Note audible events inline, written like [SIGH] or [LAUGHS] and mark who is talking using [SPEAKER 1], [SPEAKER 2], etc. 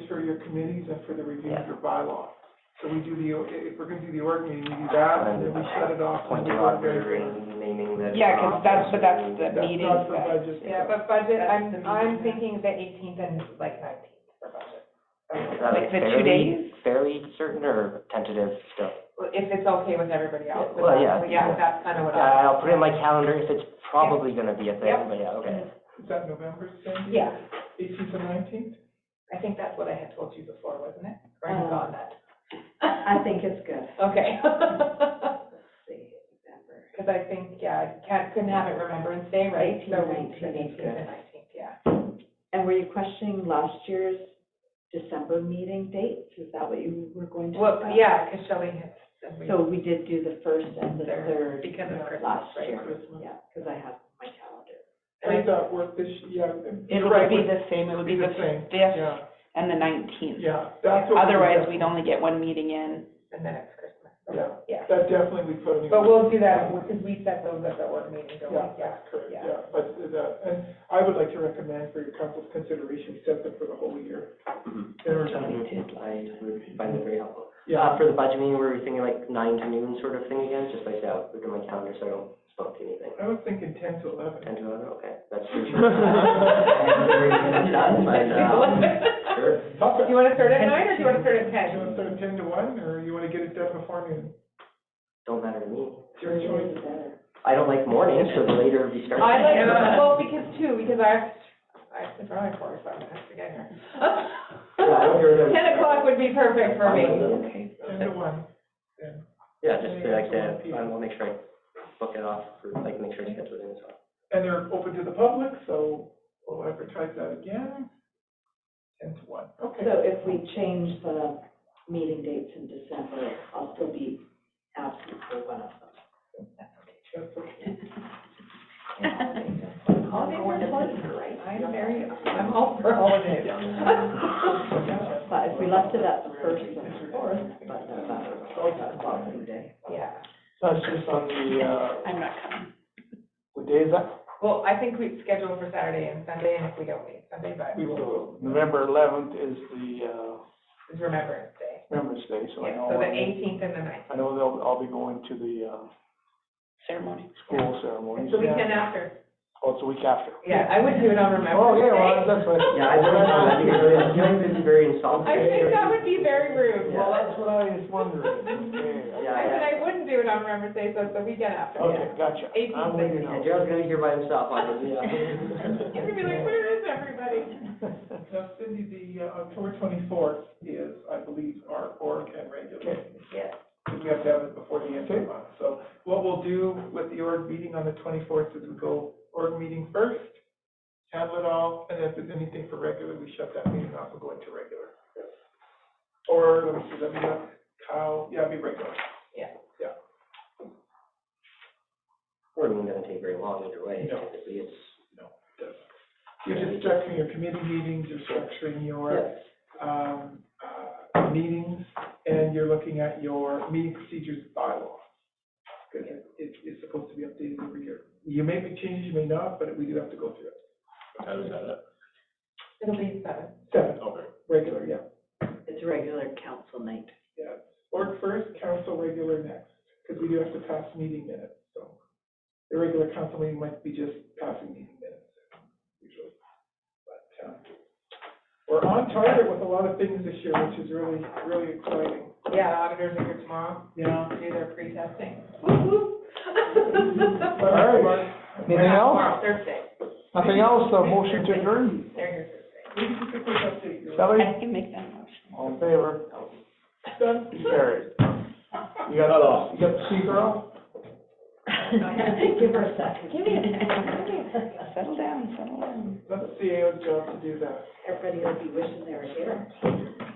[SPEAKER 1] your committees and for the review of
[SPEAKER 2] Yeah.
[SPEAKER 1] your bylaw. So we do the, if we're gonna do the org meeting, we do that, and then we shut it off.
[SPEAKER 3] Point
[SPEAKER 1] and
[SPEAKER 3] the
[SPEAKER 1] we go very-
[SPEAKER 3] auditor in, meaning that.
[SPEAKER 2] Yeah, 'cause that's- but that's the-
[SPEAKER 1] That's
[SPEAKER 2] meeting,
[SPEAKER 1] not for
[SPEAKER 2] but-
[SPEAKER 1] budget.
[SPEAKER 4] Yeah, but budget, I'm,
[SPEAKER 5] That's the
[SPEAKER 4] I'm
[SPEAKER 5] meeting.
[SPEAKER 4] thinking the eighteenth and like nineteenth for budget.
[SPEAKER 3] Uh,
[SPEAKER 2] Like the two
[SPEAKER 3] fairly-
[SPEAKER 2] days?
[SPEAKER 3] Fairly certain or tentative still?
[SPEAKER 4] Well, If it's okay with everybody else, but
[SPEAKER 3] Well, yeah,
[SPEAKER 4] that's, yeah,
[SPEAKER 3] yeah.
[SPEAKER 4] that's
[SPEAKER 1] Uh,
[SPEAKER 4] kind of what I.
[SPEAKER 3] I'll put it in my calendar if it's probably gonna be a thing,
[SPEAKER 4] Yep.
[SPEAKER 3] but yeah, okay.
[SPEAKER 1] Is that November, Sandy?
[SPEAKER 4] Yeah,
[SPEAKER 1] Eighteenth and nineteenth?
[SPEAKER 4] I think that's what I had told you before, wasn't it? Or you
[SPEAKER 5] Um,
[SPEAKER 4] got that?
[SPEAKER 5] I think it's good. [LAUGHS]
[SPEAKER 4] Okay. [LAUGHS]
[SPEAKER 5] Let's see, November.
[SPEAKER 4] Because I think, yeah, I can't, couldn't have it Remembrance Day, right?
[SPEAKER 5] 18th,
[SPEAKER 4] So we-
[SPEAKER 5] 19th,
[SPEAKER 4] Eighteenth
[SPEAKER 5] good.
[SPEAKER 4] and nineteenth, yeah.
[SPEAKER 5] And were you questioning last year's December meeting dates? Is that what you were going to?
[SPEAKER 4] Well,
[SPEAKER 5] discuss?
[SPEAKER 4] yeah, because Shelley had. and we-
[SPEAKER 5] So we did do the first and the
[SPEAKER 4] Third,
[SPEAKER 5] third
[SPEAKER 4] because of Christmas,
[SPEAKER 5] last
[SPEAKER 4] right,
[SPEAKER 5] year.
[SPEAKER 1] Christmas.
[SPEAKER 5] Yeah, because I have my calendar.
[SPEAKER 4] And I-
[SPEAKER 1] Does that work this, yeah.
[SPEAKER 2] It
[SPEAKER 1] you're
[SPEAKER 2] would
[SPEAKER 1] right,
[SPEAKER 2] be
[SPEAKER 1] we-
[SPEAKER 2] the same, it would be the
[SPEAKER 1] same.
[SPEAKER 2] fifth
[SPEAKER 1] Yeah,
[SPEAKER 2] and the nineteenth.
[SPEAKER 1] yeah, that's what.
[SPEAKER 2] Otherwise, we'd only get one meeting in.
[SPEAKER 4] And then it's Christmas.
[SPEAKER 1] Yeah.
[SPEAKER 4] Yeah.
[SPEAKER 1] That definitely we put in. the-
[SPEAKER 4] But we'll do that, because we set those at the work meeting, don't
[SPEAKER 1] Yeah,
[SPEAKER 4] we? Yeah.
[SPEAKER 1] that's correct,
[SPEAKER 4] yeah. [LAUGHS]
[SPEAKER 1] yeah, but the, and I would like to recommend for your council's consideration, we set them for the whole year.
[SPEAKER 3] Mhm.
[SPEAKER 1] There-
[SPEAKER 3] Which I would- I would find that very helpful. Uh,
[SPEAKER 1] Mm-hmm.
[SPEAKER 2] Um,
[SPEAKER 1] Yeah,
[SPEAKER 3] for the budget meeting, were we thinking like nine to noon sort of thing again? Just like that, I'll put it in my calendar so I don't spook to anything.
[SPEAKER 1] I was thinking ten to eleven.
[SPEAKER 3] Ten to eleven, okay, that's pretty sure.
[SPEAKER 1] [LAUGHS]
[SPEAKER 3] That's fine, uh, Sure.
[SPEAKER 1] Tough,
[SPEAKER 4] [LAUGHS] Do you
[SPEAKER 1] you
[SPEAKER 4] want to start at nine or do you want to start at ten?
[SPEAKER 1] wanna start ten to one, or you wanna get it done before noon?
[SPEAKER 3] Don't matter to me.
[SPEAKER 1] It's your choice.
[SPEAKER 3] I don't like mornings, so the later we start. [LAUGHS]
[SPEAKER 4] I like,
[SPEAKER 3] Yeah.
[SPEAKER 4] well, because two, because I have, I have to drive for, so I'm gonna have to get here. [LAUGHS]
[SPEAKER 3] Yeah, I don't care if-
[SPEAKER 4] Ten o'clock would be perfect for me.
[SPEAKER 2] Okay.
[SPEAKER 1] Ten to one, then.
[SPEAKER 3] Yeah, just like
[SPEAKER 1] Yeah.
[SPEAKER 3] that, I will make sure I book it off, for like, make sure I schedule it in as well.
[SPEAKER 1] And they're open to the public, so we'll advertise that again. Ten to one, okay.
[SPEAKER 5] So if we change the meeting dates in December, I'll still be absent for one of them. [LAUGHS]
[SPEAKER 1] That's okay.
[SPEAKER 4] Holidays are pleasure, right? I'm very,
[SPEAKER 2] [LAUGHS]
[SPEAKER 4] I'm all for holidays. [LAUGHS]
[SPEAKER 5] But if we left it at the first and the fourth, but no, that was Boxing Day.
[SPEAKER 4] Yeah,
[SPEAKER 1] That's just on the, uh,
[SPEAKER 2] I'm not coming.
[SPEAKER 1] what day is that?
[SPEAKER 4] well, I think we schedule for Saturday and Sunday, and if we don't meet Sunday, but
[SPEAKER 1] We
[SPEAKER 4] we'll,
[SPEAKER 1] will, November eleventh is the, uh,
[SPEAKER 4] it's Remembrance Day.
[SPEAKER 1] Remembrance Day, so I
[SPEAKER 4] Yeah,
[SPEAKER 1] know.
[SPEAKER 4] so the
[SPEAKER 1] I'll be-
[SPEAKER 4] eighteenth and the nineteenth.
[SPEAKER 1] I know they'll, I'll be going to the, uh,
[SPEAKER 2] Ceremony.
[SPEAKER 1] school ceremony.
[SPEAKER 4] It's the weekend after.
[SPEAKER 1] Oh, it's a week after.
[SPEAKER 4] Yeah, I would do it on Remembrance Day.
[SPEAKER 1] Oh, yeah, well, that's
[SPEAKER 4] [LAUGHS]
[SPEAKER 1] what.
[SPEAKER 3] Yeah, I don't know, I think it's very, I feel like this is very insulting.
[SPEAKER 4] I think that would be very rude.
[SPEAKER 1] Well, that's what I was
[SPEAKER 2] [LAUGHS]
[SPEAKER 1] wondering.
[SPEAKER 4] [LAUGHS]
[SPEAKER 1] Okay,
[SPEAKER 3] Yeah,
[SPEAKER 4] I said
[SPEAKER 3] yeah.
[SPEAKER 4] I wouldn't do it on Remembrance Day, so it's the weekend after.
[SPEAKER 1] Okay, gotcha. I'm with
[SPEAKER 2] [LAUGHS]
[SPEAKER 1] you now.
[SPEAKER 3] Yeah, Gerald's gonna be here by himself, on it, [LAUGHS]
[SPEAKER 4] You're
[SPEAKER 3] yeah.
[SPEAKER 4] gonna be like, where is everybody?
[SPEAKER 1] Now, Cindy, the uh, October twenty-fourth is, I believe, our org and regular.
[SPEAKER 4] Yeah.
[SPEAKER 1] Because we have to have it before the end of the month. So what we'll do with the org meeting on the twenty-fourth is we go org meeting first, handle it all, and if there's anything for regular, we shut that meeting off and go into regular. Or, let me see, let me, look. Kyle, yeah, it'd be regular.
[SPEAKER 3] Or it doesn't take very long either way,
[SPEAKER 1] No.
[SPEAKER 3] typically it's.
[SPEAKER 1] You're just structuring your committee meetings, you're structuring your, um, uh, meetings, and you're looking at your meeting procedures bylaw. Because it, it's- it's supposed to be updated every year. You may make changes, you may not, but we do have to go through it.
[SPEAKER 4] It'll be seven.
[SPEAKER 1] Seven, regular, yeah.
[SPEAKER 5] It's regular council night.
[SPEAKER 1] Yeah, org first, council regular next, because we do have to pass meeting minutes, so. The regular council meeting might be just passing meeting minutes, usually. But, um, we're on target with a lot of things this year, which is really, really exciting.
[SPEAKER 4] Yeah, the auditors are here tomorrow
[SPEAKER 1] Yeah.
[SPEAKER 4] to do their pre-testing.
[SPEAKER 1] All right.
[SPEAKER 4] They're
[SPEAKER 6] Anything
[SPEAKER 4] not Tomorrow,
[SPEAKER 6] else?
[SPEAKER 4] Thursday.
[SPEAKER 6] Nothing else, a motion to adjourn?
[SPEAKER 4] They're here Thursday.
[SPEAKER 1] We can quickly update your.
[SPEAKER 6] Shelley,
[SPEAKER 2] I can make that motion.
[SPEAKER 6] all in favor?
[SPEAKER 1] Done.
[SPEAKER 6] Carried.
[SPEAKER 2] [LAUGHS]
[SPEAKER 6] You got, you got the speaker off?
[SPEAKER 5] [LAUGHS] Give her a second.
[SPEAKER 2] Give me a second. Settle down, settle down.
[SPEAKER 1] E That's CAO's job to do that.
[SPEAKER 5] Everybody will be wishing they were here.